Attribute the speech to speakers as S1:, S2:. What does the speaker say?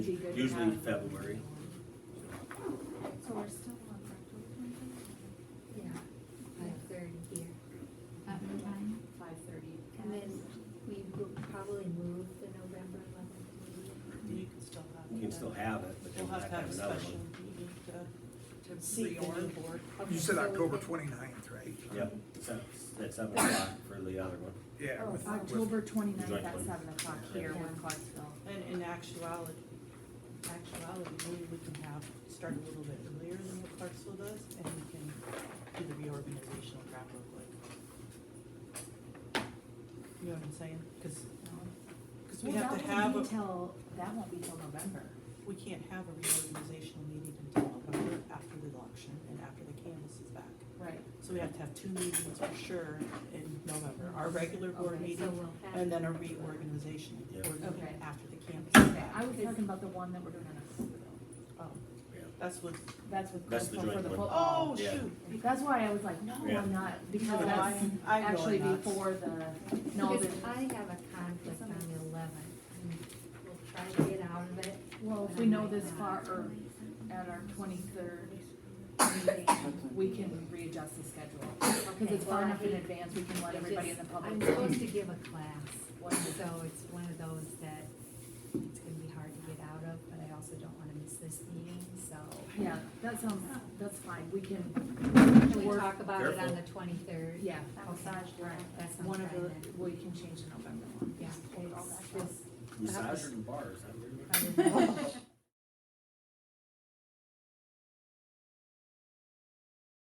S1: Be good to
S2: usually
S1: have.
S2: February.
S3: So we're still on for October twenty-fifth?
S1: Yeah, five thirty here.
S3: At what time?
S1: Five thirty. And then we will probably move the November eleventh
S2: You
S1: meeting.
S4: You can still
S2: can still have
S4: have.
S2: it, but then
S4: We'll
S2: we'll
S4: have to have a
S2: another
S4: special
S2: one.
S4: meeting to, to
S3: Seat
S4: seat
S3: the
S4: the new
S3: new
S4: board.
S1: Okay,
S5: You said
S1: so we
S5: October
S1: can-
S5: twenty-ninth, right?
S2: Yep, so that's seven o'clock for the other one.
S5: Yeah.
S6: Oh,
S5: with- with-
S6: October
S2: Joint
S6: twenty-ninth at
S2: one.
S6: seven o'clock here
S1: Yeah.
S6: with Clarksville.
S4: And in actuality, actuality, maybe we can have, start a little bit earlier than what Clarksville does, and we can do the reorganizational crap real quick. You know what I'm saying? Cause, cause we
S6: Well,
S4: have
S6: that
S4: to
S6: won't
S4: have,
S6: be
S4: a-
S6: till- That won't be till November.
S4: we can't have a reorganizational meeting until November after the election and after the canvas is back.
S1: Right.
S4: So we have to have two meetings for sure in November, our regular board
S1: Okay, so
S4: meeting
S1: we'll have-
S4: and then a reorganization
S2: Yeah.
S4: board
S1: Okay.
S4: meeting after the campus is back.
S6: I was talking about the one that we're doing in October though.
S4: Oh,
S2: Yeah.
S4: That's what,
S6: That's with
S2: That's the
S6: Clarksville for
S2: joint
S6: the
S2: one.
S4: oh,
S6: football.
S2: Yeah.
S4: shoot.
S6: That's why I was like, no,
S2: Yeah.
S6: I'm not, because
S4: No,
S6: that's
S4: I'm- I'm going
S6: actually
S4: nuts.
S6: before the, no,
S1: Because
S6: the-
S1: I have a conflict on the eleventh, and we'll try to get out of it.
S6: well, if we know this far, or at our twenty-third meeting, we can readjust the schedule. Cause
S1: Okay,
S6: it's far
S1: well,
S6: enough in
S1: I-
S6: advance, we can let
S1: I
S6: everybody in
S1: just-
S6: the public.
S1: I'm
S6: know.
S1: supposed to give a class,
S6: What is
S1: so it's one of those that it's gonna be hard to get out of, but I also don't wanna miss this meeting, so.
S6: Yeah, that sounds, that's fine, we can,
S1: Can we
S6: We're-
S1: talk about it on
S2: Careful.
S1: the twenty-third?
S6: yeah,
S1: Massage, that's on
S6: one
S1: Friday.
S6: of the, we can change the November one.
S1: Yeah,
S6: Just hold all
S1: it's
S6: that.
S1: just-
S2: Massage and bars, I
S1: I don't know.